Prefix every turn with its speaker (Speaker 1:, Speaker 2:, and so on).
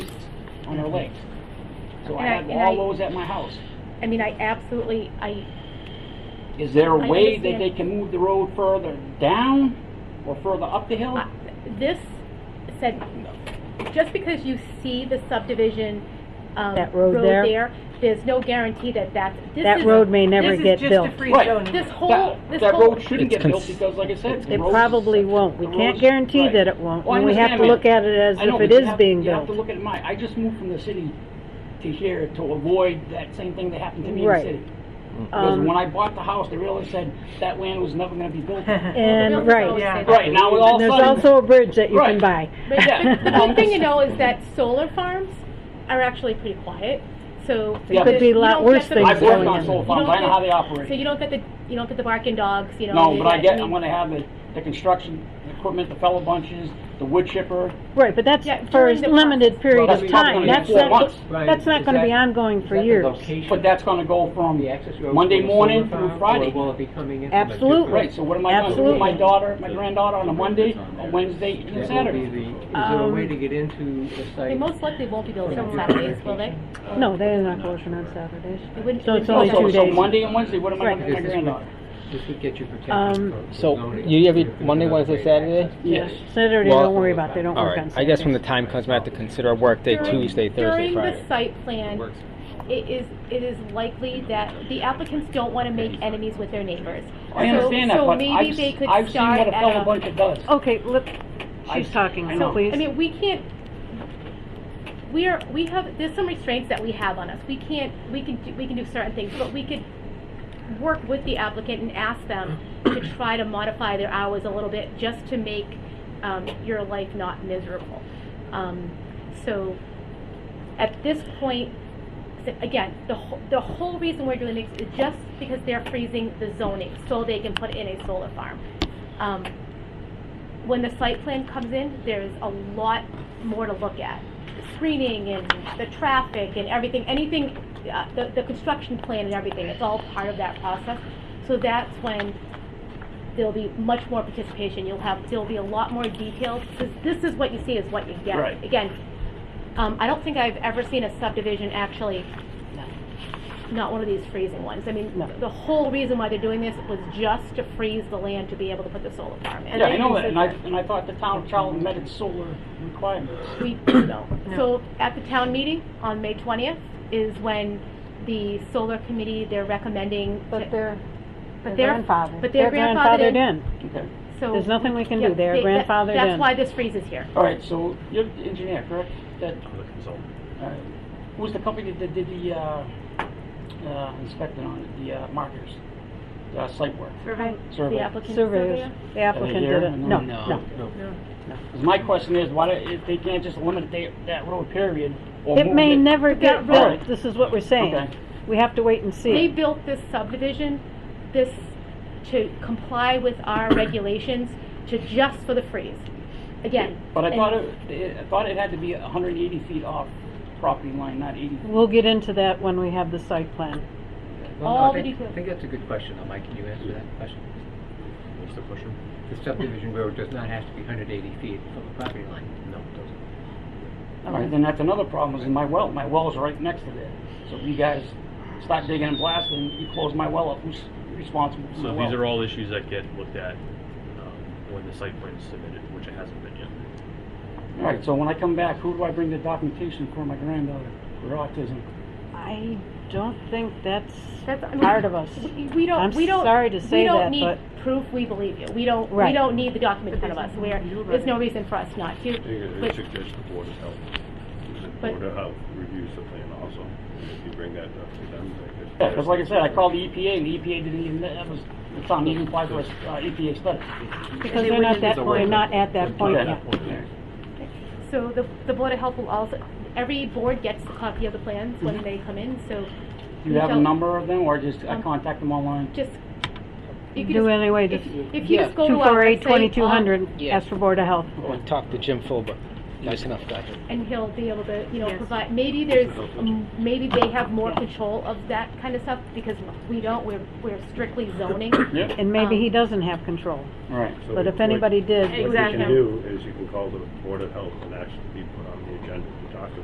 Speaker 1: on our lakes. So I
Speaker 2: And I-
Speaker 1: have
Speaker 2: and
Speaker 1: all
Speaker 2: I-
Speaker 1: those at my house.
Speaker 2: I mean, I absolutely, I,
Speaker 1: Is there a
Speaker 2: I
Speaker 1: way that
Speaker 2: understand.
Speaker 1: they can move the road further down or further up the hill?
Speaker 3: Uh,
Speaker 2: I- this said, just because you see the subdivision, um,
Speaker 3: That road there?
Speaker 2: there's no guarantee that that's, this
Speaker 3: That
Speaker 2: is-
Speaker 3: road may never get
Speaker 4: This is just
Speaker 3: built.
Speaker 4: a free
Speaker 1: Right.
Speaker 4: zoning.
Speaker 2: This whole,
Speaker 1: That,
Speaker 2: this
Speaker 1: that
Speaker 2: whole.
Speaker 1: road shouldn't
Speaker 5: It's
Speaker 1: get built
Speaker 5: cons-
Speaker 1: because like I said. the
Speaker 3: It
Speaker 1: roads-
Speaker 3: probably won't. We
Speaker 1: the
Speaker 3: can't
Speaker 1: roads-
Speaker 3: guarantee
Speaker 1: right.
Speaker 3: that it won't,
Speaker 1: Oh, I
Speaker 3: and we have
Speaker 1: understand
Speaker 3: to
Speaker 1: that.
Speaker 3: look at it as
Speaker 1: I know,
Speaker 3: if it
Speaker 1: but you
Speaker 3: is
Speaker 1: have-
Speaker 3: being
Speaker 1: You have to
Speaker 3: built.
Speaker 1: look at my, I just moved from the city to here to avoid that same thing that happened to me in the
Speaker 3: Right.
Speaker 1: city. Because
Speaker 3: Um,
Speaker 1: when I bought the house, they really said that land was never gonna be built.
Speaker 3: And, right,
Speaker 4: Yeah.
Speaker 1: Right, now we all
Speaker 3: and there's
Speaker 1: sudden-
Speaker 3: also a bridge that you can
Speaker 1: Right.
Speaker 3: buy.
Speaker 2: But the- the
Speaker 1: Yeah.
Speaker 2: good thing you know is that solar farms are actually pretty quiet, so.
Speaker 1: Yeah, Could
Speaker 3: be a
Speaker 2: you
Speaker 3: lot
Speaker 2: don't
Speaker 3: worse
Speaker 2: get the-
Speaker 3: things
Speaker 1: I've worked on
Speaker 3: in.
Speaker 1: solar
Speaker 2: You
Speaker 1: farms,
Speaker 2: don't
Speaker 1: I know how they
Speaker 2: get-
Speaker 1: operate.
Speaker 2: So you don't get the, you don't get the barking dogs, you know?
Speaker 1: No,
Speaker 2: you
Speaker 1: but I
Speaker 2: get-
Speaker 1: get, I'm
Speaker 2: mean,
Speaker 1: gonna have the, the construction equipment, the fellow bunches, the wood chipper.
Speaker 3: Right, but that's
Speaker 2: Yeah,
Speaker 3: for a
Speaker 2: during the
Speaker 3: limited period
Speaker 1: Well,
Speaker 3: of
Speaker 1: that's probably
Speaker 3: time.
Speaker 1: gonna
Speaker 3: That's
Speaker 1: be four
Speaker 3: not,
Speaker 1: months.
Speaker 3: that's not gonna be ongoing for years.
Speaker 1: But that's gonna go from Monday morning through Friday.
Speaker 6: will it be coming in?
Speaker 3: Absolutely.
Speaker 1: Right, so what am I gonna do with
Speaker 3: Absolutely.
Speaker 1: my daughter, my granddaughter on a Monday, a Wednesday, and a
Speaker 6: That will be
Speaker 1: Saturday?
Speaker 6: the, is there a way to get into the
Speaker 2: They
Speaker 6: site?
Speaker 2: most likely won't be built on Saturdays, will they?
Speaker 3: No, they're not closing on Saturdays.
Speaker 2: They wouldn't-
Speaker 3: So it's
Speaker 2: they
Speaker 1: So,
Speaker 3: only
Speaker 2: wouldn't build
Speaker 3: two
Speaker 1: so
Speaker 2: on-
Speaker 3: days.
Speaker 1: Monday and Wednesday, what am I
Speaker 3: Right.
Speaker 1: gonna do with my granddaughter?
Speaker 6: This would get you
Speaker 3: Um,
Speaker 6: protected. for
Speaker 5: So
Speaker 6: zoning.
Speaker 5: you every Monday, Wednesday, Saturday?
Speaker 1: Yes.
Speaker 3: Saturday,
Speaker 5: Well-
Speaker 3: don't worry about, they don't
Speaker 5: All
Speaker 3: work on
Speaker 5: right.
Speaker 3: Saturdays.
Speaker 5: I guess when the time comes, we have to consider a work day,
Speaker 2: During-
Speaker 5: Tuesday, Thursday,
Speaker 2: During the
Speaker 5: Friday.
Speaker 2: site plan, it is, it is likely that the applicants don't want to make enemies with their neighbors.
Speaker 1: I
Speaker 2: So-
Speaker 1: understand that,
Speaker 2: so
Speaker 1: but
Speaker 2: maybe
Speaker 1: I've,
Speaker 2: they could
Speaker 1: I've seen
Speaker 2: start
Speaker 1: what a
Speaker 2: at
Speaker 1: fellow
Speaker 2: a-
Speaker 1: buncher does.
Speaker 3: Okay, look,
Speaker 1: I-
Speaker 3: she's talking
Speaker 1: I
Speaker 3: now,
Speaker 1: know.
Speaker 3: please.
Speaker 2: I mean, we can't, we are, we have, there's some restraints that we have on us. We can't, we can, do- we can do certain things, but we could work with the applicant and ask them to try to modify their hours a little bit just to make um, your life not miserable. Um, So at this point, so again, the whole, the whole reason we're doing this is just because they're freezing the zoning so they can put in a solar farm. Um, when the site plan comes in, there's a lot more to look at. Screening and the traffic and everything, anything, uh, the, the construction plan and everything, it's all part of that process. So that's when there'll be much more participation, you'll have, there'll be a lot more details, because this is what you see is what you get.
Speaker 1: Right.
Speaker 2: Again, um, I don't think I've ever seen a subdivision actually, not one of these freezing ones. I mean, the whole reason why they're doing this was just to freeze the land to be able to put the solar farm in.
Speaker 1: Yeah, I know that, and I, and I thought the town of Charlton met its solar requirements.
Speaker 2: We do know. So at the town meeting on May 20th is when the solar committee, they're recommending.
Speaker 3: But
Speaker 2: to-
Speaker 3: they're,
Speaker 2: but
Speaker 3: they're
Speaker 2: they're-
Speaker 3: grandfathered.
Speaker 2: But they're grandfathered in.
Speaker 1: Okay.
Speaker 2: So-
Speaker 3: There's nothing we can
Speaker 2: Yeah,
Speaker 3: do. They're
Speaker 2: they- that-
Speaker 3: grandfathered in.
Speaker 2: That's why this freezes here.
Speaker 1: All right, so you're the engineer, correct? That, all right. Who's the company that did the, uh, uh, inspecting on it, the, uh, markers? Uh, site work?
Speaker 2: The
Speaker 1: Survey?
Speaker 2: applicant surveyor.
Speaker 3: Surveyors, the applicant
Speaker 1: here?
Speaker 3: did it. No,
Speaker 1: No.
Speaker 3: no.
Speaker 1: Because my question is, why, do- if they can't just limit that, that road period or
Speaker 3: It
Speaker 1: move
Speaker 3: may never get
Speaker 2: that
Speaker 1: road-
Speaker 3: built, this is what we're saying.
Speaker 1: Okay.
Speaker 3: We have to wait and
Speaker 2: They
Speaker 3: see.
Speaker 2: built this subdivision, this, to comply with our regulations, to just for the freeze. Again.
Speaker 1: But I
Speaker 2: and-
Speaker 1: thought it- it, I thought it had to be hundred and eighty feet off property line, not eighty.
Speaker 3: We'll get into that when we have the site plan.
Speaker 6: Well,
Speaker 2: all
Speaker 6: I
Speaker 2: the
Speaker 6: think-
Speaker 2: details.
Speaker 6: I think that's a good question, though, Mike, can you answer that question? The subdivision road does not have to be 180 feet from the property line. No, it doesn't.
Speaker 1: All right, then that's another problem, is my well, my well's right next to there. So if you guys start digging and blasting, you close my well up, who's responsible for my
Speaker 7: So
Speaker 1: well?
Speaker 7: these are all issues that get looked at um, when the site plan is submitted, which it hasn't been yet.
Speaker 1: All right, so when I come back, who do I bring the documentation for my granddaughter for autism?
Speaker 3: I don't think that's
Speaker 2: That's- I mean,
Speaker 3: part of us.
Speaker 2: We- We don't,
Speaker 3: I'm
Speaker 2: we don't.
Speaker 3: sorry to say that,
Speaker 2: We
Speaker 3: but-
Speaker 2: don't need proof, we believe you. We don't, we
Speaker 3: Right.
Speaker 2: don't need the document in front of us. We're, there's no reason for us not to.
Speaker 8: I
Speaker 2: But-
Speaker 8: suggest the Board of Health, the
Speaker 2: But-
Speaker 8: Board of Health reviews the plan also, if you bring that up to them. they could-
Speaker 1: Yeah, because like I said, I called the EPA, and the EPA didn't even, that was, the town didn't apply for a uh, EPA study.
Speaker 3: Because they're not that, they're not at that point
Speaker 1: Okay.
Speaker 3: yet.
Speaker 2: So the, the Board of Health will also, every board gets a copy of the plans when they come in, so
Speaker 1: Do you have a
Speaker 2: So-
Speaker 1: number of them, or just I contact them online?
Speaker 2: just. you could
Speaker 3: Do
Speaker 2: just-
Speaker 3: anyway,
Speaker 2: if-
Speaker 3: just
Speaker 2: If you just go to our website. uh, um,
Speaker 3: 248-2200,
Speaker 5: Yeah.
Speaker 3: ask for Board of Health.
Speaker 5: We talked to Jim Fulber. Nice enough guy.
Speaker 2: and he'll be able to, you know, provide, maybe there's, um, maybe they have more control of that kind of stuff, because we don't, we're, we're strictly zoning.
Speaker 1: Yep.
Speaker 3: And maybe
Speaker 2: Um,
Speaker 3: he doesn't have control,
Speaker 1: All right.
Speaker 8: So
Speaker 3: but
Speaker 8: what-
Speaker 3: if anybody did,
Speaker 8: What you
Speaker 2: Exactly.
Speaker 8: can do is you can call the Board of Health and actually be put on the agenda to talk about